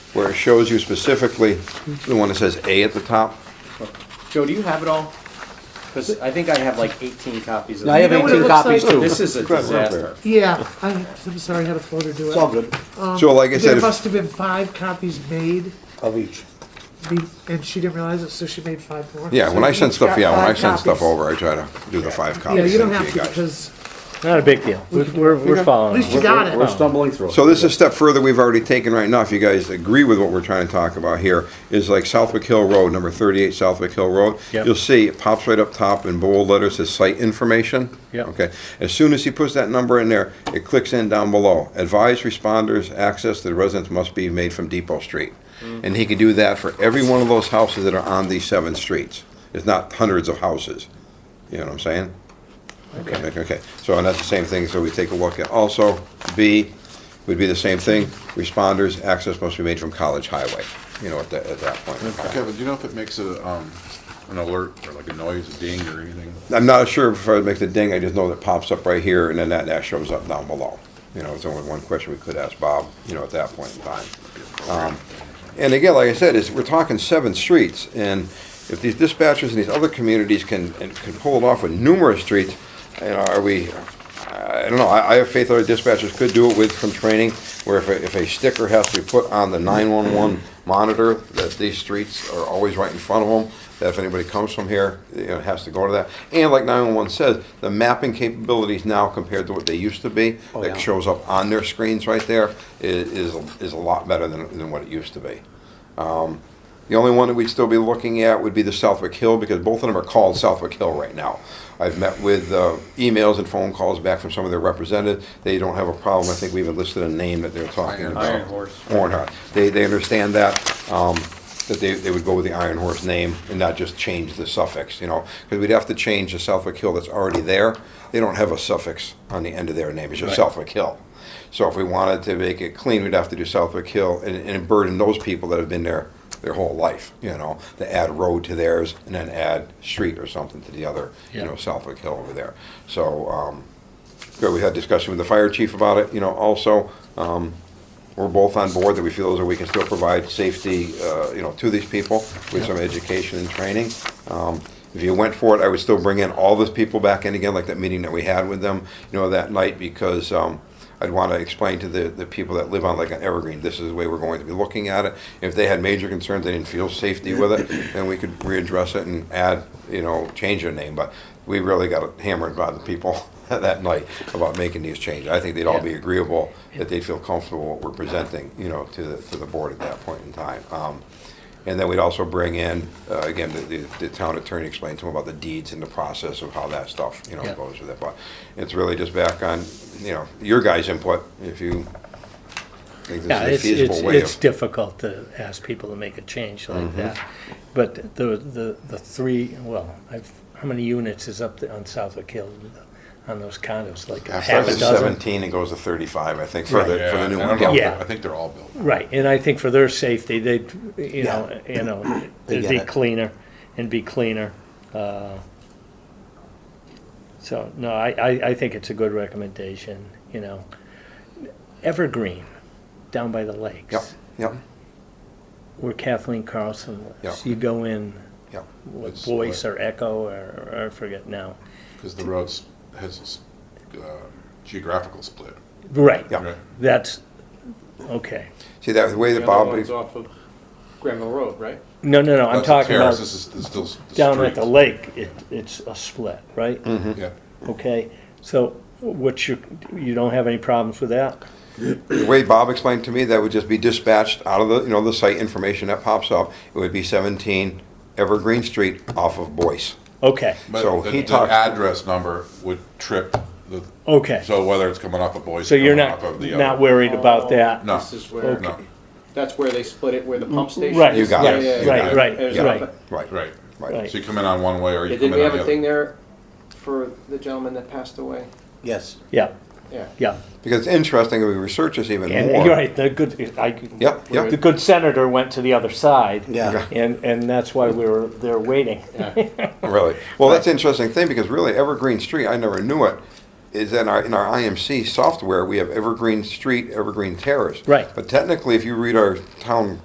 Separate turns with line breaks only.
where it shows you specifically, the one that says A at the top.
Joe, do you have it all? Because I think I have like 18 copies of
I have
know what it
18
looks
copies
like?
too.
This is a disaster.
Yeah, I- I'm sorry, I had a floater do it.
It's all good,
Um,
So like I said,
There
if-
must have been five copies made,
of each.
be- and she didn't realize it, so she made five more.
yeah,
So
when I
you've
send stuff,
got
yeah, when I
five
send stuff
copies.
over, I try to do the five copies.
Yeah, you don't
thing
have
you
to,
guys.
because
Not a big deal. We're, we're, we're
at
following.
least you got
We're
it.
stumbling through.
So this is a step further we've already taken right now, if you guys agree with what we're trying to talk about here, is like Southwick Hill Road, number thirty-eight Southwick Hill Road.
Yep.
You'll see, it pops right up top in bold letters, says site information.
Yep.
Okay, as soon as he puts that number in there, it clicks in down below, advise responders, access to the residents must be made from Depot Street.
Mm-hmm.
And he can do that for every one of those houses that are on these seven streets, it's not hundreds of houses, you know what I'm saying? Okay, okay, so, and that's the same thing, so we take a look at, also, B would be the same thing, responders, access must be made from College Highway, you know, at that, at that point. in time.
Kevin, do you know if it makes a, um, an alert or like a noise, a ding or anything?
I'm not sure if it makes a ding, I just know that pops up right here, and then that, that shows up down below. You know, it's only one question we could ask Bob, you know, at that point in time. Um, And again, like I said, is, we're talking seven streets, and if these dispatchers in these other communities can, and can pull it off with numerous streets, you know, are we, I don't know, I, I have faith our dispatchers could do it with some training, where if a, if a sticker has to be put on the nine-one-one monitor, that these streets are always right in front of them, that if anybody comes from here, you know, it has to go to that. And like nine-one-one says, the mapping capabilities now compared to what they used to be,
Oh,
that
yeah.
shows up on their screens right there, i- is, is a lot better than, than what it used to be. The only one that we'd still be looking at would be the Southwick Hill, because both of them are called Southwick Hill right now. I've met with uh, emails and phone calls back from some of their representatives. They don't have a problem. I think we even listed a name that they're talking about.
Iron Horse.
Hornhut. They, they understand that, um, that they, they would go with the Iron Horse name and not just change the suffix, you know? Because we'd have to change the Southwick Hill that's already there. They don't have a suffix on the end of their name. It's just Southwick Hill. So if we wanted to make it clean, we'd have to do Southwick Hill and, and burden those people that have been there their whole life, you know, to add road to theirs and then add street or something to the other, you
Yeah.
know, Southwick Hill over there. So, um, good, we had discussion with the fire chief about it, you know, also. Um, we're both on board that we feel as though we can still provide safety, uh, you know, to these people with some education and training. Um, If you went for it, I would still bring in all those people back in again, like that meeting that we had with them, you know, that night, because um, I'd want to explain to the, the people that live on like an Evergreen, this is the way we're going to be looking at it. If they had major concerns, they didn't feel safety with it, then we could readdress it and add, you know, change their name. But we really got hammered by the people that night about making these changes. I think they'd all be agreeable that they feel comfortable what we're presenting, you know, to the, to the board at that point in time. Um, And then we'd also bring in, uh, again, the, the- the town attorney explained to them about the deeds and the process of how that stuff, you know,
Yeah.
goes with it. But it's really just back on, you know, your guys' input, if you think
Yeah,
this
it's,
is a
it's,
feasible way
it's
of. Mm-hmm.
difficult to ask people to make a change like that. But the, the, the three, well, I've, how many units is up there on Southwick Hill uh, on those condos? Like half
Starts
a
at
dozen?
seventeen and goes to thirty-five, I think, for
Right.
the, for the new
I
one.
don't know.
Yeah.
I think they're all built.
Right, and I think for their safety, they, you know, you know,
They
they'd
get
be
it.
cleaner and be cleaner. uh, So, no, I, I, I think it's a good recommendation, you know. Evergreen, down by the lakes.
Yep, yep,
Where Kathleen Carlson
Yeah.
lives. You go in,
yep.
what
It's
Voice or Echo or, or I forget now.
Because the roads has a s- uh, geographical split.
Right,
Yeah.
right?
that's, okay.
See, that, the way
The
that
other
Bob.
one's off of Granville Road, right?
No, no, no, I'm
That's a
talking
terrace,
about
This is, this is still. s- the
down at
street.
the
Mm-hmm.
lake, it, it's a split, right?
Yeah.
Okay, so what's your, you don't have any problems with that?
The way Bob explained to me, that would just be dispatched out of the, you know, the site information that pops up. It would be 17 Evergreen Street off of Boyce.
Okay,
So
But the,
he
the
talked-
address number would trip the,
okay.
so whether it's coming off of Boise.
So you're
coming
not,
off of the
not
other-
worried about that?
No.
This is where,
No,
that's where they split it, where the pump station is.
Right,
You got
Yeah,
it.
yeah,
You
right,
yeah.
got
right,
it.
There's
right,
a-
Right,
right.
right.
right.
So you come in on one way or
Yeah,
you
Did
come
we
in
have
on the
a thing
other.
there for the gentleman that passed away?
Yes.
Yeah,
Yeah.
yeah.
Because it's interesting, if we research this even
And
more.
you're right, the good, I.
Yep, yep.
The good senator went to the other side.
Yeah.
And, and that's why we were there waiting.
Really? Well, that's an interesting thing because really Evergreen Street, I never knew it, is in our, in our IMC software, we have Evergreen Street, Evergreen Terrace.
Right.
But technically, if you read our town